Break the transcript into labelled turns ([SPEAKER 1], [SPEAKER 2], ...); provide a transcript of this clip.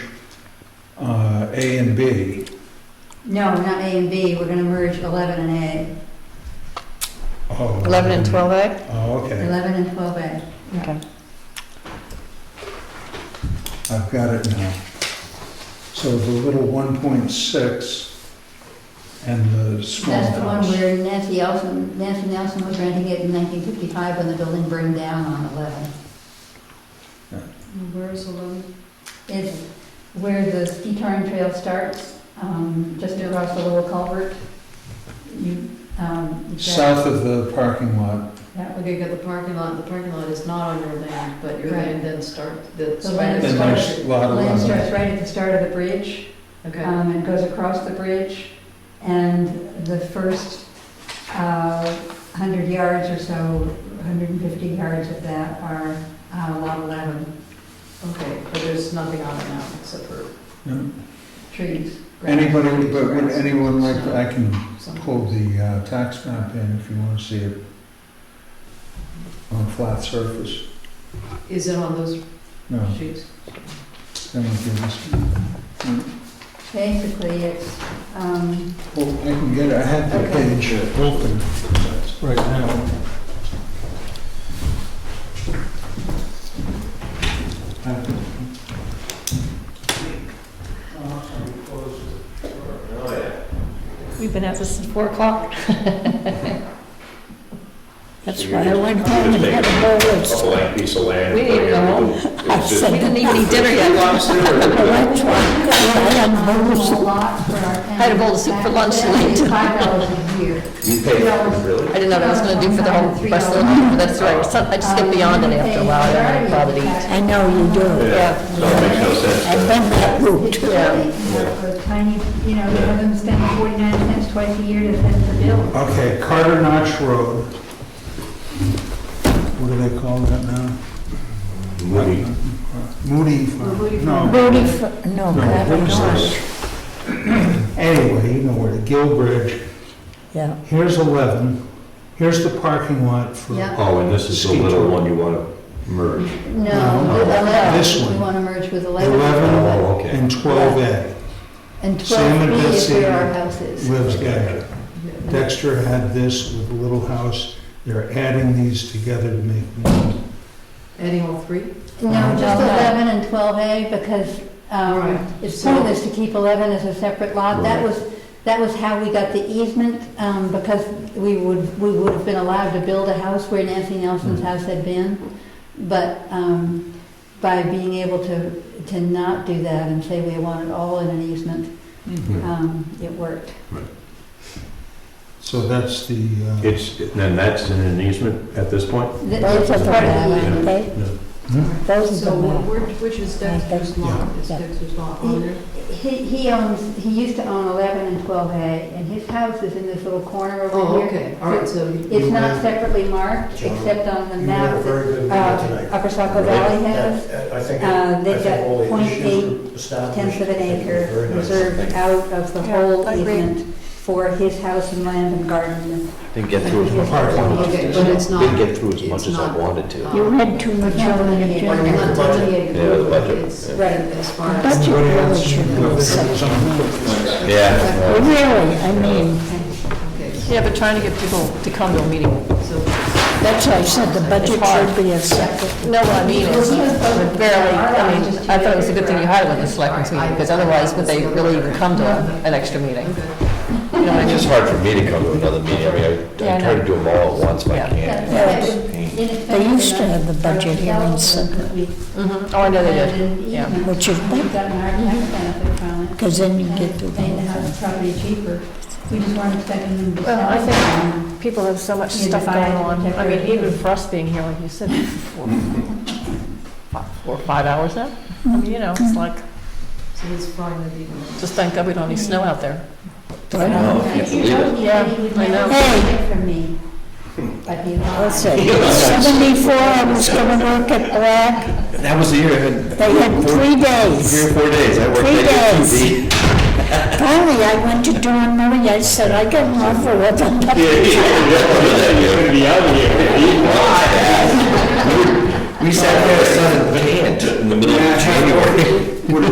[SPEAKER 1] have Uh, A and B.
[SPEAKER 2] No, not A and B, we're gonna merge 11 and
[SPEAKER 1] Oh,
[SPEAKER 3] 11 and 12A?
[SPEAKER 1] Oh,
[SPEAKER 2] A,
[SPEAKER 1] okay,
[SPEAKER 2] 11 and 12A.
[SPEAKER 3] Okay.
[SPEAKER 1] I've got it now. So the little 1.6 and the small house.
[SPEAKER 2] That's the one where Nancy Nelson, Nancy Nelson was renting it in 1955 when the building burned down on 11.
[SPEAKER 4] Where is eleven?
[SPEAKER 2] It's where the ski touring trail starts, um, just across the little culvert. You, um, that-
[SPEAKER 1] South of the parking lot.
[SPEAKER 2] That would
[SPEAKER 4] Okay, you got the parking lot, the parking lot is not on your land, but your
[SPEAKER 2] Right.
[SPEAKER 4] land then starts, the
[SPEAKER 2] The land
[SPEAKER 1] And
[SPEAKER 2] is-
[SPEAKER 4] spider.
[SPEAKER 1] there's a lot of
[SPEAKER 2] Lane
[SPEAKER 1] others.
[SPEAKER 2] starts right at the start of the bridge,
[SPEAKER 4] Okay,
[SPEAKER 2] um, and goes across the bridge, and the first, uh, hundred yards or so, hundred and fifty yards of that are, uh, lot eleven
[SPEAKER 4] okay, but there's nothing on it now except for
[SPEAKER 1] No.
[SPEAKER 2] trees. grass.
[SPEAKER 1] Anybody, but would anyone like,
[SPEAKER 4] No.
[SPEAKER 1] I can
[SPEAKER 4] some.
[SPEAKER 1] pull the uh, tax map in if you want to see it on a flat surface.
[SPEAKER 4] Is it on those
[SPEAKER 1] No,
[SPEAKER 4] sheets?
[SPEAKER 1] that would give us,
[SPEAKER 2] Basically, it's, um,
[SPEAKER 1] well, I can get it, I had the
[SPEAKER 2] Okay.
[SPEAKER 1] page uh, open right now.
[SPEAKER 3] We've been at this since 4 o'clock.
[SPEAKER 5] So
[SPEAKER 6] That's
[SPEAKER 5] you're
[SPEAKER 6] right, I
[SPEAKER 5] just-
[SPEAKER 6] went
[SPEAKER 5] you're
[SPEAKER 6] home and
[SPEAKER 5] just
[SPEAKER 6] had a
[SPEAKER 5] making
[SPEAKER 6] whole
[SPEAKER 5] A
[SPEAKER 6] list.
[SPEAKER 5] blank piece of land.
[SPEAKER 3] We didn't
[SPEAKER 5] putting
[SPEAKER 3] go.
[SPEAKER 5] everything-
[SPEAKER 6] I
[SPEAKER 5] Oh, it's just-
[SPEAKER 3] We
[SPEAKER 6] said,
[SPEAKER 3] didn't even eat dinner
[SPEAKER 5] It's
[SPEAKER 3] yet.
[SPEAKER 5] lost there.
[SPEAKER 6] I went to, I had a whole
[SPEAKER 2] um, a
[SPEAKER 6] list of
[SPEAKER 2] lot for our town.
[SPEAKER 3] Had a bowl of soup for lunch
[SPEAKER 2] That's
[SPEAKER 3] tonight.
[SPEAKER 2] Five dollars a year.
[SPEAKER 5] You paid for it, really?
[SPEAKER 3] I didn't know what I was gonna do for the whole rest of the night, but that's right. So- I just get beyond
[SPEAKER 2] Um,
[SPEAKER 3] it after a while, I don't really bother to eat.
[SPEAKER 6] I know you do.
[SPEAKER 3] Yeah.
[SPEAKER 5] So it makes no sense. to-
[SPEAKER 6] I've been that route.
[SPEAKER 2] It's really, you know, for tiny, you know, you have them spending 49 cents twice a year to send the bill.
[SPEAKER 1] Okay, Carter Notch Road. What do they call that now?
[SPEAKER 5] Moody.
[SPEAKER 1] Moody Farm.
[SPEAKER 2] Moody
[SPEAKER 1] No.
[SPEAKER 6] Booty, for- no,
[SPEAKER 1] No,
[SPEAKER 6] God,
[SPEAKER 1] what is
[SPEAKER 6] no.
[SPEAKER 1] this? Anyway, you know where the Gill Bridge,
[SPEAKER 6] Yeah,
[SPEAKER 1] here's 11, here's the parking lot for,
[SPEAKER 2] Yeah.
[SPEAKER 5] Oh, and this is the
[SPEAKER 1] Ski
[SPEAKER 5] little
[SPEAKER 1] tour.
[SPEAKER 5] one you want to merge.
[SPEAKER 2] No, with
[SPEAKER 1] No,
[SPEAKER 2] 11.
[SPEAKER 1] this
[SPEAKER 2] We
[SPEAKER 1] one.
[SPEAKER 2] want to merge with 11.
[SPEAKER 1] 11
[SPEAKER 5] Oh, okay.
[SPEAKER 1] and 12A
[SPEAKER 2] And
[SPEAKER 1] Sam and
[SPEAKER 2] 12B is
[SPEAKER 1] Betsy
[SPEAKER 2] where our house is.
[SPEAKER 1] lives Dexter. Dexter had this with the Little House, they're adding these together to make one.
[SPEAKER 4] Any all three?
[SPEAKER 2] No, just
[SPEAKER 6] Well, Oh, no.
[SPEAKER 2] 11 and 12A because
[SPEAKER 4] Right.
[SPEAKER 2] um, it's pointless to keep 11 as a separate lot. That
[SPEAKER 5] Right.
[SPEAKER 2] was, that was how we got the easement um, because we would, we would have been allowed to build a house where Nancy
[SPEAKER 1] Mm.
[SPEAKER 2] Nelson's house had been. But um, by being able to, to not do that and say we want it all in an easement, um, it worked.
[SPEAKER 1] So that's the, uh,
[SPEAKER 5] It's, then that's in an easement at this point?
[SPEAKER 2] Th-
[SPEAKER 6] those
[SPEAKER 2] It's
[SPEAKER 6] are
[SPEAKER 2] a
[SPEAKER 6] the
[SPEAKER 2] part of the
[SPEAKER 6] map,
[SPEAKER 2] easement.
[SPEAKER 6] okay?
[SPEAKER 1] hmm?
[SPEAKER 6] Those are
[SPEAKER 4] So
[SPEAKER 6] the map.
[SPEAKER 4] where- which is Dexter's lot? Is Dexter's lot on there?
[SPEAKER 2] He, he owns, he used to own 11 and 12A, and his house is in this little corner over
[SPEAKER 4] Oh,
[SPEAKER 2] here.
[SPEAKER 4] okay, all right, so you-
[SPEAKER 2] It's not separately marked,
[SPEAKER 7] John,
[SPEAKER 2] except on the
[SPEAKER 7] You had a
[SPEAKER 2] map
[SPEAKER 7] very good
[SPEAKER 2] that
[SPEAKER 7] meeting
[SPEAKER 2] uh,
[SPEAKER 7] tonight.
[SPEAKER 2] Upper Saco Valley has.
[SPEAKER 7] And I think,
[SPEAKER 2] Uh,
[SPEAKER 7] I
[SPEAKER 2] they've got
[SPEAKER 7] think all the
[SPEAKER 2] 0.8
[SPEAKER 7] issues were established.
[SPEAKER 2] Tenth of an
[SPEAKER 7] I think it was
[SPEAKER 2] acre
[SPEAKER 7] very nice.
[SPEAKER 2] reserved
[SPEAKER 7] Thank you.
[SPEAKER 2] out of the
[SPEAKER 3] Yeah,
[SPEAKER 2] whole
[SPEAKER 3] I agree.
[SPEAKER 2] easement for his house and land and garden.
[SPEAKER 8] Didn't get through as much as I
[SPEAKER 1] Parking lot.
[SPEAKER 8] wanted.
[SPEAKER 4] Okay, but it's not.
[SPEAKER 8] Didn't get through as much
[SPEAKER 4] it's
[SPEAKER 8] as I
[SPEAKER 4] not-
[SPEAKER 8] wanted to.
[SPEAKER 4] uh,
[SPEAKER 6] You read too much over the
[SPEAKER 4] I'm
[SPEAKER 6] agenda.
[SPEAKER 4] not telling you.
[SPEAKER 8] Yeah, the budget,
[SPEAKER 4] It's-
[SPEAKER 8] yeah.
[SPEAKER 2] Right.
[SPEAKER 4] As far as.
[SPEAKER 6] Budget
[SPEAKER 1] Anybody
[SPEAKER 6] really
[SPEAKER 1] else?
[SPEAKER 6] should
[SPEAKER 1] Whether
[SPEAKER 6] be
[SPEAKER 1] it
[SPEAKER 6] separate.
[SPEAKER 1] was on-
[SPEAKER 5] Yeah.
[SPEAKER 6] Really, I mean,
[SPEAKER 4] Okay,
[SPEAKER 3] Yeah, but trying to get people to come to a meeting.
[SPEAKER 4] so
[SPEAKER 6] that's why I said the budget should be a separate.
[SPEAKER 3] No, what I mean is, barely, I mean, I thought it was a good thing you had it with the selectmen's meeting, because otherwise would they really even come to an extra meeting? You know what I
[SPEAKER 8] It's just
[SPEAKER 3] mean?
[SPEAKER 8] hard for me to come to another meeting. I mean, I-
[SPEAKER 3] Yeah, I
[SPEAKER 8] I try to do them all at once if
[SPEAKER 3] Yeah.
[SPEAKER 8] I can.
[SPEAKER 2] They
[SPEAKER 6] used to have the budget here in Suffolk.
[SPEAKER 3] Mhm. Oh, I know they did, yeah.
[SPEAKER 6] Which is better.
[SPEAKER 2] We've gotten our tax benefit from it.
[SPEAKER 6] 'Cause then you get to the
[SPEAKER 2] Made the
[SPEAKER 6] whole
[SPEAKER 2] house property cheaper. We just weren't expecting them to sell.
[SPEAKER 3] Well, I
[SPEAKER 2] it.
[SPEAKER 3] think people have so much
[SPEAKER 2] You
[SPEAKER 3] stuff going
[SPEAKER 2] divide
[SPEAKER 3] on.
[SPEAKER 2] and
[SPEAKER 3] I mean,
[SPEAKER 2] decorate.
[SPEAKER 3] even for us being here, like you said, four, fi- four, five hours now. I mean, you know, it's like,
[SPEAKER 4] so it's fine with you.
[SPEAKER 3] just thank God we don't need snow out there.
[SPEAKER 6] Right?
[SPEAKER 8] Oh, you believe it.
[SPEAKER 2] Yeah, I know.
[SPEAKER 6] Hey.
[SPEAKER 2] From me, but he
[SPEAKER 6] What's
[SPEAKER 2] lied.
[SPEAKER 6] it? Seventy-four, I was gonna work at Black.
[SPEAKER 8] That was the year I had.
[SPEAKER 6] They had three days.
[SPEAKER 8] Three or four days. I worked
[SPEAKER 6] Three
[SPEAKER 8] at E
[SPEAKER 6] days.
[SPEAKER 8] UTV.
[SPEAKER 6] Finally, I went to Dawn Murray, I said, I got an offer with them.
[SPEAKER 8] We sat there, sun in the pan, in the middle of January.
[SPEAKER 1] Would it